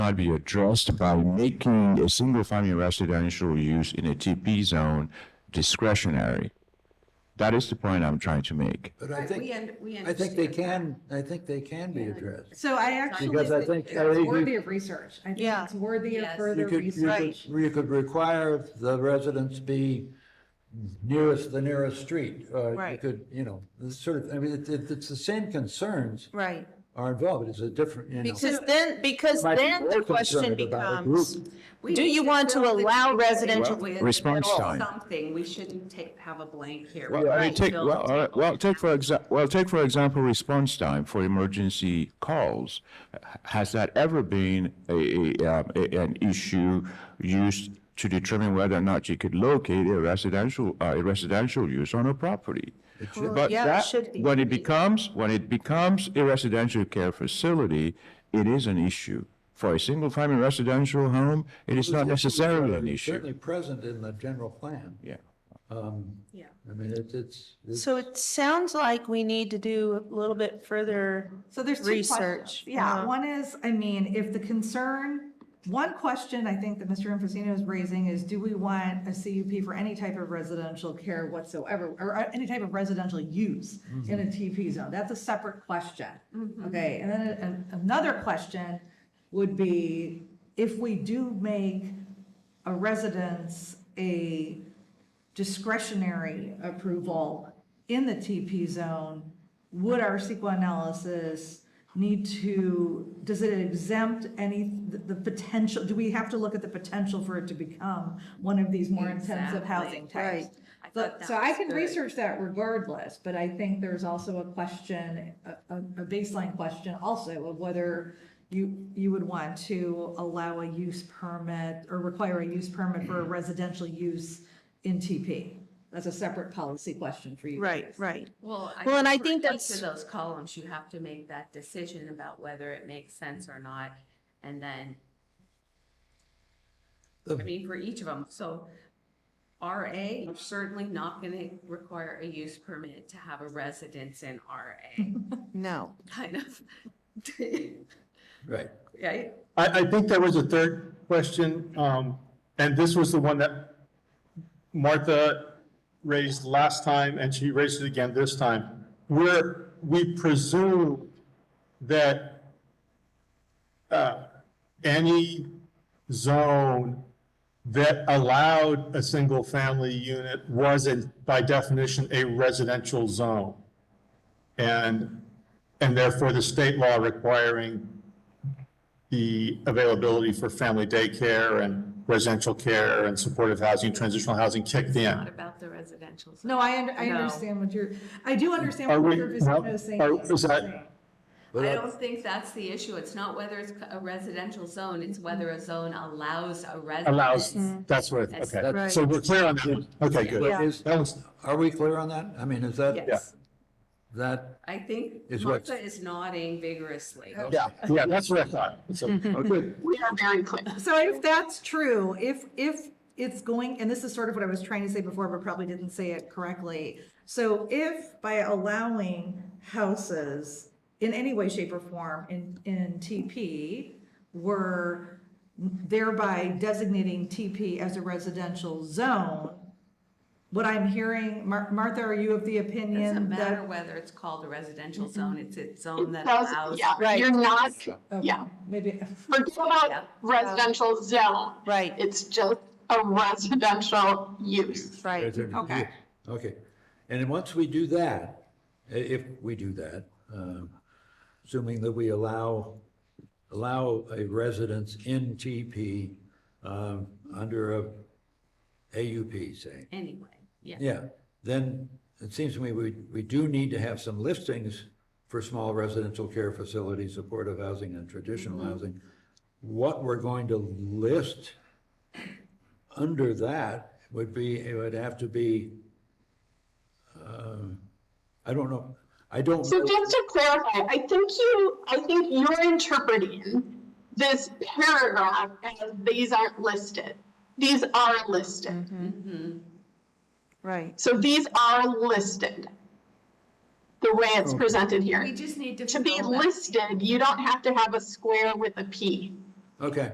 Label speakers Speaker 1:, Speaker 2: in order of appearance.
Speaker 1: not be addressed by making a single-family residential use in a TP zone discretionary. That is the point I'm trying to make.
Speaker 2: But I
Speaker 3: Right, we
Speaker 2: think,
Speaker 3: un- we
Speaker 2: I think they
Speaker 3: understand.
Speaker 2: can, I think they can be addressed.
Speaker 3: So I actually,
Speaker 2: Because I think, I
Speaker 4: It's
Speaker 2: think
Speaker 4: worthy
Speaker 2: you-
Speaker 4: of research. I think
Speaker 3: Yeah.
Speaker 4: it's worthy of
Speaker 3: Yes.
Speaker 2: you
Speaker 4: further
Speaker 2: could, you
Speaker 4: research.
Speaker 2: could, you could require the residents be nearest, the nearest street. or You
Speaker 3: Right.
Speaker 2: could, you know, this sort of, I mean, it- it- it's the same concerns
Speaker 3: right,
Speaker 2: are involved, it's a different, you know.
Speaker 5: Because then, because
Speaker 2: Might be
Speaker 5: then
Speaker 2: more
Speaker 5: the question
Speaker 2: concerned about a
Speaker 5: becomes,
Speaker 2: group.
Speaker 3: We
Speaker 5: do
Speaker 3: need
Speaker 5: you
Speaker 3: to
Speaker 5: want to
Speaker 3: fill the
Speaker 5: allow
Speaker 3: gap
Speaker 5: residential?
Speaker 3: with
Speaker 1: Response time.
Speaker 3: Something, we shouldn't take, have a blank here.
Speaker 1: Well, I mean,
Speaker 5: Right.
Speaker 1: take,
Speaker 3: Fill
Speaker 1: well,
Speaker 3: the
Speaker 1: all right,
Speaker 3: table.
Speaker 1: well, take for exa, well, take for example, response time for emergency calls. H- Has that ever been a, a, um, a- an issue used to determine whether or not you could locate a residential, uh, a residential use on a property? But
Speaker 5: yeah, it
Speaker 1: that,
Speaker 5: should be.
Speaker 1: when it becomes, when it becomes a residential care facility, it is an issue. For a single-family residential home, it is not necessarily an issue.
Speaker 2: Certainly present in the general plan. Um,
Speaker 1: Yeah.
Speaker 3: Yeah.
Speaker 2: I mean, it's, it's, it's-
Speaker 5: So it sounds like we need to do a little bit further.
Speaker 3: So there's two questions.
Speaker 5: Research.
Speaker 4: Yeah, one is, I mean, if the concern, one question I think that Mr. Infosino is raising is, do we want a CUP for any type of residential care whatsoever? Or uh, any type of residential use in a TP zone? That's a separate question. Okay, and then an- another question would be, if we do make a residence a discretionary approval in the TP zone, would our CEQA analysis need to, does it exempt any, the- the potential, do we have to look at the potential for it to become one of these more intensive
Speaker 3: Exactly,
Speaker 4: housing types?
Speaker 3: right. I
Speaker 4: But-
Speaker 3: thought that
Speaker 4: So I
Speaker 3: was
Speaker 4: can
Speaker 3: good.
Speaker 4: research that regardless, but I think there's also a question, a, a a baseline question also of whether you, you would want to allow a use permit or require a use permit for a residential use in TP. That's a separate policy question for you.
Speaker 5: Right,
Speaker 4: guys.
Speaker 5: right.
Speaker 3: Well,
Speaker 5: Well, and I
Speaker 3: for
Speaker 5: think
Speaker 3: Each
Speaker 5: that's-
Speaker 3: of those columns, you have to make that decision about whether it makes sense or not. And then, I
Speaker 2: The-
Speaker 3: mean, for each of them, so RA, you're certainly not going to require a use permit to have a residence in RA,
Speaker 5: No.
Speaker 3: kind of.
Speaker 2: right.
Speaker 3: Right?
Speaker 6: I, I think there was a third question, um, and this was the one that Martha raised last time, and she raised it again this time, where we presume that uh, any zone that allowed a single-family unit was, in- by definition, a residential zone. And, and therefore, the state law requiring the availability for family daycare and residential care and supportive housing, transitional housing kicked
Speaker 3: Not
Speaker 6: in.
Speaker 3: about the residential. side.
Speaker 4: No, I, under- I
Speaker 3: No.
Speaker 4: understand what you're, I do understand
Speaker 6: Are
Speaker 4: what
Speaker 6: we,
Speaker 4: you're
Speaker 6: well,
Speaker 4: Infosino is saying.
Speaker 6: are-
Speaker 4: yes,
Speaker 6: is
Speaker 4: I'm
Speaker 6: that,
Speaker 4: saying.
Speaker 2: But
Speaker 3: I
Speaker 2: I-
Speaker 3: don't think that's the issue. It's not whether it's a residential zone, it's whether a zone allows a residence.
Speaker 6: allows, that's what, okay.
Speaker 2: That's-
Speaker 6: So we're clear on that one. Okay, good.
Speaker 2: but is-
Speaker 6: That was,
Speaker 2: Are we clear on that? I mean, is that,
Speaker 3: Yes,
Speaker 2: that,
Speaker 3: I think
Speaker 2: Is what-
Speaker 3: Martha is nodding vigorously.
Speaker 6: yeah, yeah, that's what I thought. So, okay.
Speaker 4: So if that's true, if, if it's going, and this is sort of what I was trying to say before, but probably didn't say it correctly. So if by allowing houses in any way, shape or form in, in TP, we're thereby designating TP as a residential zone, what I'm hearing, Mar- Martha, are you of the opinion that?
Speaker 3: Doesn't matter whether it's called a residential zone, it's a zone that
Speaker 7: Those-
Speaker 3: allows.
Speaker 7: Yeah, you're not,
Speaker 4: Okay,
Speaker 7: yeah.
Speaker 4: Maybe.
Speaker 7: Forget
Speaker 3: Yeah.
Speaker 7: about residential zone.
Speaker 5: Right.
Speaker 7: It's just a residential use.
Speaker 5: Right.
Speaker 2: Okay. Okay, and then once we do that, i- if we do that, um, assuming that we allow, allow a residence in TP um, under a AUP, say,
Speaker 3: Anyway, yeah.
Speaker 2: yeah, then it seems to me we, we do need to have some listings for small residential care facilities, supportive housing and traditional
Speaker 7: Mm-hmm.
Speaker 2: housing. What we're going to list under that would be, it would have to be, um, I don't know, I don't.
Speaker 7: So
Speaker 2: know-
Speaker 7: just to clarify, I think you, I think you're interpreting this paragraph as these aren't listed. These are listed.
Speaker 3: Mm-hmm.
Speaker 5: Right.
Speaker 7: So these are listed. The way it's presented
Speaker 3: We
Speaker 7: here.
Speaker 3: just need to.
Speaker 7: To be
Speaker 3: fill that-
Speaker 7: listed, you don't have to have a square with a P.
Speaker 2: Okay.